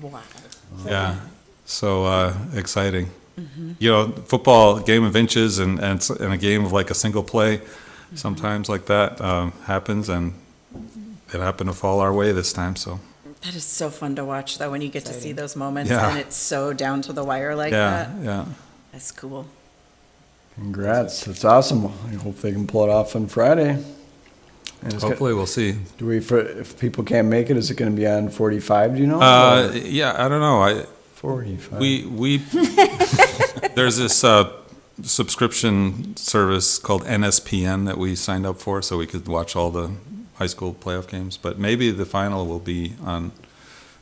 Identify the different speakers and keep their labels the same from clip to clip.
Speaker 1: Wow.
Speaker 2: Yeah. So uh, exciting. Mm-hmm. You know, football, game of inches and, and, s- and a game of like a single play,
Speaker 1: Mm-hmm.
Speaker 2: sometimes like that um, happens, and it happened to fall our way this time. So,
Speaker 1: That is so fun to watch, though, when you get to see those moments
Speaker 2: Yeah.
Speaker 1: and it's so down to the wire like
Speaker 2: yeah,
Speaker 1: that.
Speaker 2: yeah.
Speaker 1: That's cool.
Speaker 3: Congrats, that's awesome. I hope they can pull it off on Friday. And it's go-
Speaker 2: Hopefully, we'll see.
Speaker 3: Do we, for- if people can't make it, is it gonna be on forty-five, do you know?
Speaker 2: Uh, yeah, I don't know. I,
Speaker 3: Forty-five.
Speaker 2: We we there's this uh, subscription service called NSPN that we signed up for, so we could watch all the high school playoff games. But maybe the final will be on,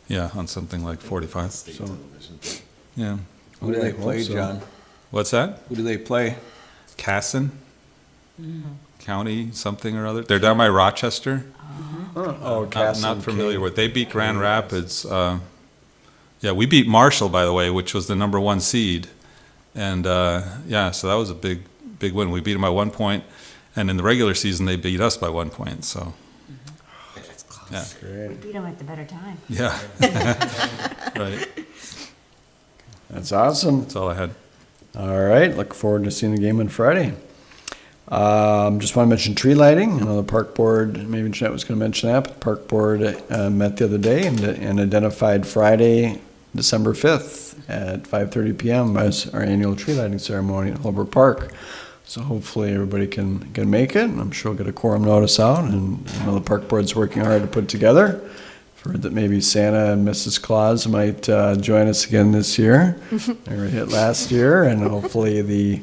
Speaker 2: yeah, on something like 45. So, yeah,
Speaker 4: Who do
Speaker 3: Yeah, I
Speaker 4: they
Speaker 3: hope
Speaker 4: play,
Speaker 3: so.
Speaker 4: John?
Speaker 2: what's that?
Speaker 4: Who do they play?
Speaker 2: Casson County something or other. They're down by Rochester.
Speaker 3: Oh,
Speaker 2: Not,
Speaker 3: Castle
Speaker 2: not
Speaker 3: and
Speaker 2: familiar
Speaker 3: Kate.
Speaker 2: with. They beat Grand Rapids. Uh, yeah, we beat Marshall, by the way, which was the number one seed. And uh, yeah, so that was a big, big win. We beat them by one point, and in the regular season, they beat us by one point. So
Speaker 3: Great.
Speaker 5: We beat them at the better time.
Speaker 2: yeah, right.
Speaker 3: That's awesome.
Speaker 2: That's all I had.
Speaker 3: All right, look forward to seeing the game on Friday. Um, just want to mention tree lighting. I know the park board, maybe Jeanette was going to mention that, but the park board uh, met the other day and, and identified Friday, December 5th at 5.30 p.m. as our annual tree lighting ceremony at Holbrook Park. So hopefully everybody can, can make it. and I'm sure we'll get a quorum notice out and I know the park board's working hard to put it together. I've Heard that maybe Santa and Mrs. Claus might uh, join us again this year. They were hit last year, and hopefully the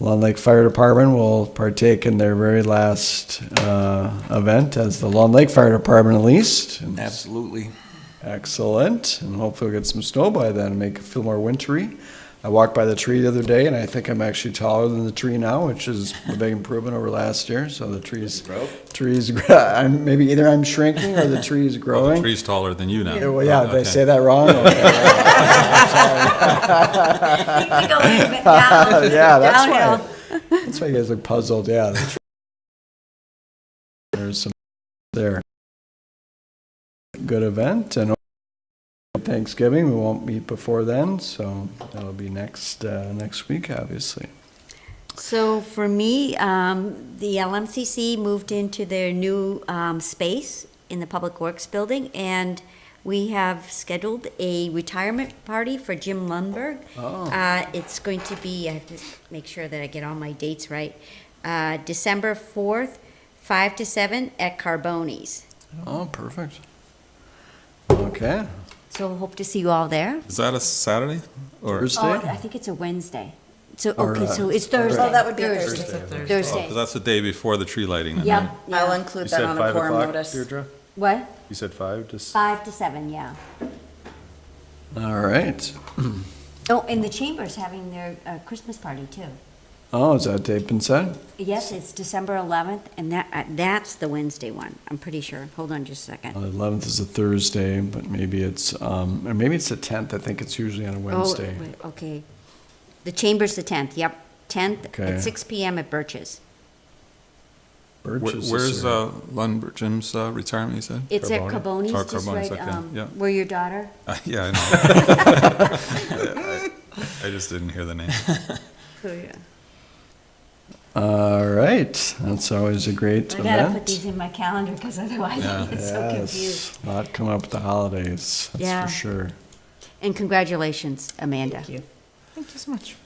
Speaker 3: Long Lake Fire Department will partake in their very last uh, event as the Long Lake Fire Department at least. And
Speaker 4: Absolutely.
Speaker 3: Excellent, and hopefully we'll get some snow by then and make it feel more wintry. I walked by the tree the other day, and I think I'm actually taller than the tree now, which is a big improvement over last year. So the trees, trees, gr- I'm maybe either I'm shrinking or the tree is
Speaker 2: Well, the
Speaker 3: growing.
Speaker 2: tree's taller than you now.
Speaker 3: Yeah, Well, yeah,
Speaker 2: Oh,
Speaker 3: did I
Speaker 2: okay.
Speaker 3: say that wrong?
Speaker 5: You go in, but down.
Speaker 3: yeah, that's
Speaker 5: Downhill.
Speaker 3: why. That's why you guys look puzzled. Yeah. that's- There's some there. Good event and Thanksgiving. We won't meet before then, so that'll be next uh, next week, obviously.
Speaker 5: So for me, um, the LMCC moved into their new um, space in the Public Works Building, and we have scheduled a retirement party for Jim Lundberg.
Speaker 3: Oh.
Speaker 5: Uh, It's going to be, I have to make sure that I get all my dates right, uh, December 4th, 5 to 7 at Carboni's.
Speaker 3: Oh, perfect. Okay.
Speaker 5: So hope to see you all there.
Speaker 2: Is that a Saturday or?
Speaker 3: Thursday.
Speaker 5: Oh, I think it's a Wednesday. So,
Speaker 3: Or,
Speaker 5: okay,
Speaker 3: uh,
Speaker 5: so it's Thursday.
Speaker 1: Oh, that would be
Speaker 2: Oh, 'cause
Speaker 5: Thursday.
Speaker 2: that's the day before the tree lighting. then,
Speaker 5: Yep,
Speaker 2: right?
Speaker 1: I'll
Speaker 5: yeah.
Speaker 1: include
Speaker 6: You
Speaker 1: that
Speaker 6: said
Speaker 1: on a
Speaker 6: five
Speaker 1: quorum
Speaker 6: o'clock,
Speaker 1: notice.
Speaker 6: Deirdre?
Speaker 5: What?
Speaker 6: You said five, just.
Speaker 5: Five to seven, yeah.
Speaker 3: All right.
Speaker 5: Oh, and the Chamber's having their uh, Christmas party too.
Speaker 3: Oh, is that Dave Pinsett?
Speaker 5: Yes, it's December 11th, and that, uh, that's the Wednesday one, I'm pretty sure. Hold on just a
Speaker 2: Oh,
Speaker 5: second.
Speaker 3: The eleventh is a Thursday, but maybe it's um, or maybe it's the tenth. I think it's usually on a
Speaker 5: Oh,
Speaker 3: Wednesday.
Speaker 5: wait, Okay. The Chamber's the 10th, yep, 10th
Speaker 3: Okay.
Speaker 5: at six PM at Birch's.
Speaker 3: Birch
Speaker 2: Where-
Speaker 3: is this
Speaker 2: Where's
Speaker 3: year.
Speaker 2: uh, Lundberg Jim's uh, retirement? You said.
Speaker 5: It's at
Speaker 2: Carboni? Oh,
Speaker 5: Carboni's, just
Speaker 2: Carboni's,
Speaker 5: right,
Speaker 2: okay,
Speaker 5: um,
Speaker 2: yeah.
Speaker 5: where your daughter,
Speaker 2: yeah, I know. I, I just didn't hear the name.
Speaker 5: Oh,
Speaker 3: All right, that's always a great
Speaker 5: I
Speaker 3: event.
Speaker 5: gotta put these in my calendar, because otherwise I
Speaker 2: Yeah.
Speaker 5: get so confused.
Speaker 3: Yes, a lot coming up with the holidays, that's
Speaker 5: Yeah.
Speaker 3: for sure.
Speaker 5: And congratulations, Amanda. Thank you.
Speaker 1: Thank you so much.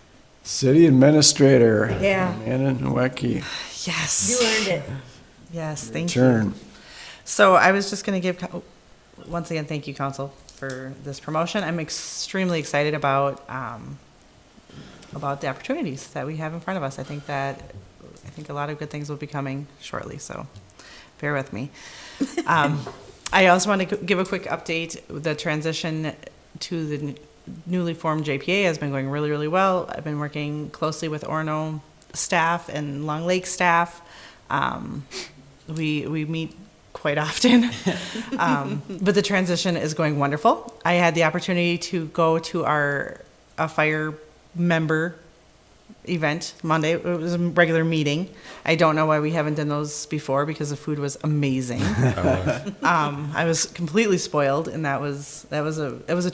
Speaker 3: City Administrator.
Speaker 7: Yeah.
Speaker 3: Anna Nowacki,
Speaker 7: Yes.
Speaker 5: earned it.
Speaker 7: Yes, thank you.
Speaker 3: turn.
Speaker 7: So I was just going to give, co- once again, thank you, council, for this promotion. I'm extremely excited about, um, about the opportunities that we have in front of us. I think that, I think a lot of good things will be coming shortly, so bear with me. Um, I also want to give a quick update. The transition to the n- newly formed JPA has been going really, really well. I've been working closely with Orno staff and Long Lake staff. Um, we we meet quite often, um, but the transition is going wonderful. I had the opportunity to go to our a fire member event Monday. It was a regular meeting. I don't know why we haven't done those before because the food was amazing. um, I was completely spoiled, and that was that was a it was a